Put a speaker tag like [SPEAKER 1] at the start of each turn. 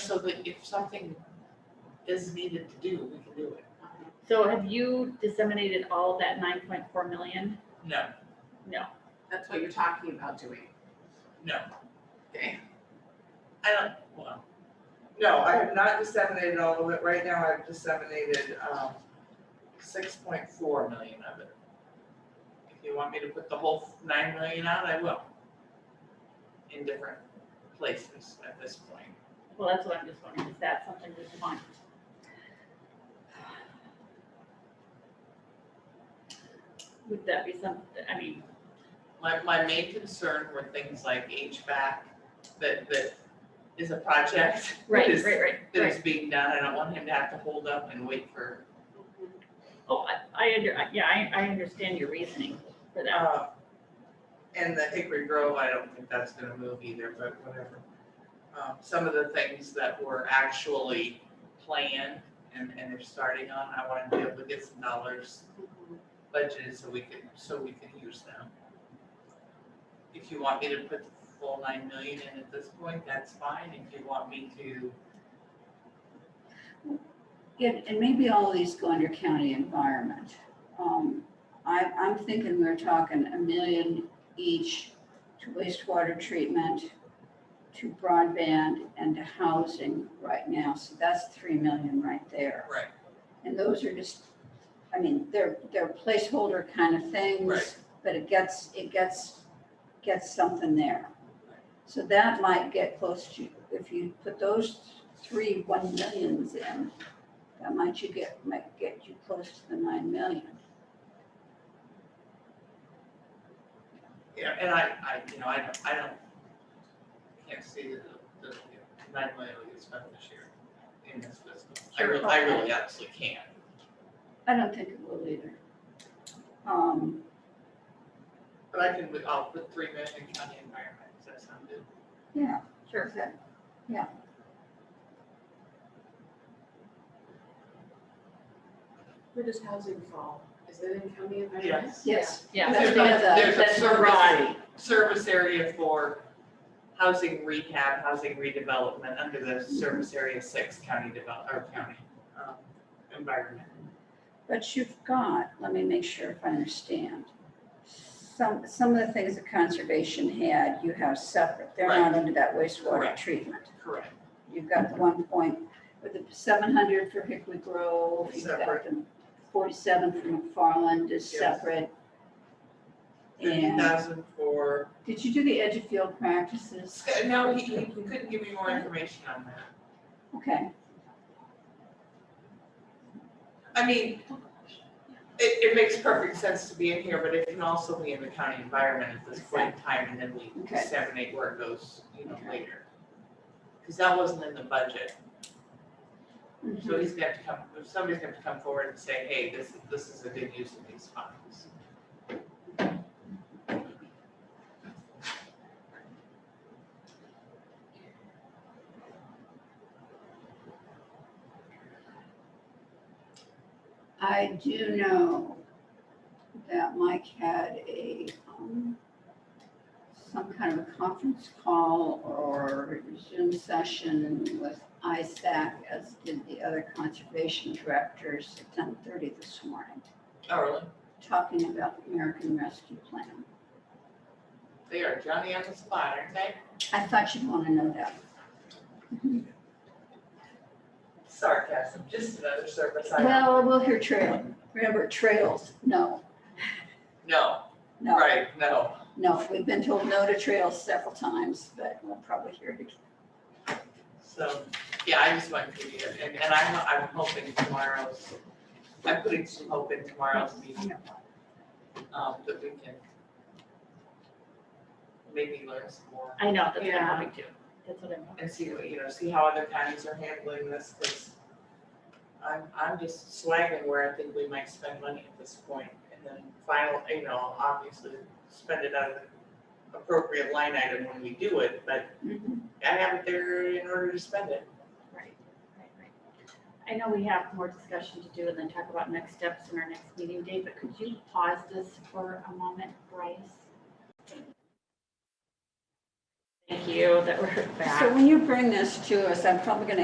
[SPEAKER 1] so that if something is needed to do, we can do it.
[SPEAKER 2] So have you disseminated all of that nine point four million?
[SPEAKER 1] No,
[SPEAKER 2] No.
[SPEAKER 3] That's what you're talking about doing.
[SPEAKER 1] no. Okay. I don't, well,
[SPEAKER 4] No, I have not disseminated all of it. Right now, I've disseminated, um, six point
[SPEAKER 1] four
[SPEAKER 4] four.
[SPEAKER 1] million of it. If you want me to put the whole nine million out, I will. In different places at this point.
[SPEAKER 2] Well, that's what I'm just wondering, is that something that you want? Would that be something, I mean,
[SPEAKER 1] My, my main concern were things like HVAC, that, that is a project. that
[SPEAKER 2] right,
[SPEAKER 1] is-
[SPEAKER 2] right, right,
[SPEAKER 1] That
[SPEAKER 2] right.
[SPEAKER 1] is being done, I don't want him to have to hold up and wait for,
[SPEAKER 2] Oh, I, I under, yeah, I, I understand your reasoning for that.
[SPEAKER 1] uh,
[SPEAKER 4] And the Hickory Grove, I don't think that's gonna move either, but whatever.
[SPEAKER 1] um, some of the things that were actually planned and, and they're starting on, I wanted to be able to get some dollars budgeted so we could, so we can use them. If you want me to put the full nine million in at this point, that's fine, if you want me to,
[SPEAKER 5] Yeah, and maybe all of these go under county environment. Um, I, I'm thinking we're talking a million each to wastewater treatment, to broadband and to housing right now, so that's three million right there.
[SPEAKER 1] Right.
[SPEAKER 5] And those are just, I mean, they're, they're placeholder kind of things.
[SPEAKER 1] Right.
[SPEAKER 5] But it gets, it gets, gets something there. So that might get close to, if you put those three one millions in, that might you get, might get you close to the nine million.
[SPEAKER 1] yeah, and I, I, you know, I don't, I don't, can't see that the, the nine million will get spent this year in this fiscal. I really, I really absolutely can't.
[SPEAKER 5] I don't think it will either. Um,
[SPEAKER 1] But I can, I'll put three million in county environment, does that sound good?
[SPEAKER 5] yeah,
[SPEAKER 2] Sure.
[SPEAKER 5] is that- yeah.
[SPEAKER 3] Where does housing fall? Is it in county environment?
[SPEAKER 1] Yes.
[SPEAKER 5] Yes.
[SPEAKER 2] Yeah.
[SPEAKER 5] That's
[SPEAKER 1] There's
[SPEAKER 5] one of
[SPEAKER 1] a-
[SPEAKER 5] the-
[SPEAKER 1] there's a
[SPEAKER 2] that's
[SPEAKER 1] service-
[SPEAKER 2] variety.
[SPEAKER 1] Service area for housing rehab, housing redevelopment under the service area six county develop, or county, um, environment.
[SPEAKER 5] But you've got, let me make sure if I understand. Some, some of the things that conservation had, you have separate. They're not under that wastewater
[SPEAKER 1] Correct.
[SPEAKER 5] treatment.
[SPEAKER 1] Correct.
[SPEAKER 5] You've got the one point, with the seven hundred for Hickory Grove, you've got
[SPEAKER 4] Separate.
[SPEAKER 5] the forty-seven for McFarland is
[SPEAKER 4] Yes.
[SPEAKER 5] separate.
[SPEAKER 4] Fifty
[SPEAKER 5] And
[SPEAKER 4] thousand for,
[SPEAKER 5] did you do the edge of field practices?
[SPEAKER 1] Sc- No, he, he couldn't give me more information on that.
[SPEAKER 5] Okay,
[SPEAKER 1] I mean, it, it makes perfect sense to be in here, but it can also be in the county environment at this point in time, and then we
[SPEAKER 5] Okay.
[SPEAKER 1] disseminate where it goes, you know,
[SPEAKER 5] Okay.
[SPEAKER 1] later. Cause that wasn't in the budget. So
[SPEAKER 5] mhm,
[SPEAKER 1] he's gonna have to come, somebody's gonna have to come forward and say, hey, this, this is a good use of these funds.
[SPEAKER 5] I do know that Mike had a, um, some kind of a conference call or Zoom session with ISAC, as did the other conservation directors at ten thirty this morning,
[SPEAKER 1] Oh, really?
[SPEAKER 5] talking about the American Rescue Plan.
[SPEAKER 1] They are Johnny on the spot, aren't they?
[SPEAKER 5] I thought you'd wanna know that.
[SPEAKER 1] Sarcasm, just another service
[SPEAKER 5] uh,
[SPEAKER 1] I don't.
[SPEAKER 5] Well, we'll hear trail, remember trails, no,
[SPEAKER 1] No,
[SPEAKER 5] no.
[SPEAKER 1] right, no.
[SPEAKER 5] No, we've been told no to trails several times, but we'll probably hear it again.
[SPEAKER 1] So, yeah, I just wanted to be here, and, and I'm, I'm hoping tomorrow's, I'm putting some hope in tomorrow's meeting. Um, that we can maybe learn some more
[SPEAKER 2] I know, that's what
[SPEAKER 1] Yeah.
[SPEAKER 2] I'm hoping to. That's what I'm hoping.
[SPEAKER 1] and see, what you know, see how other counties are handling this, because I'm, I'm just swagging where I think we might spend money at this point, and then final, you know, obviously spend it on the appropriate line item when we do it, but
[SPEAKER 5] Mhm.
[SPEAKER 1] I have it there in order to spend it.
[SPEAKER 2] Right, right, right. I know we have more discussion to do and then talk about next steps in our next meeting day, but could you pause this for a moment, Bryce? Thank you, that we're back.
[SPEAKER 5] So when you bring this to us, I'm probably gonna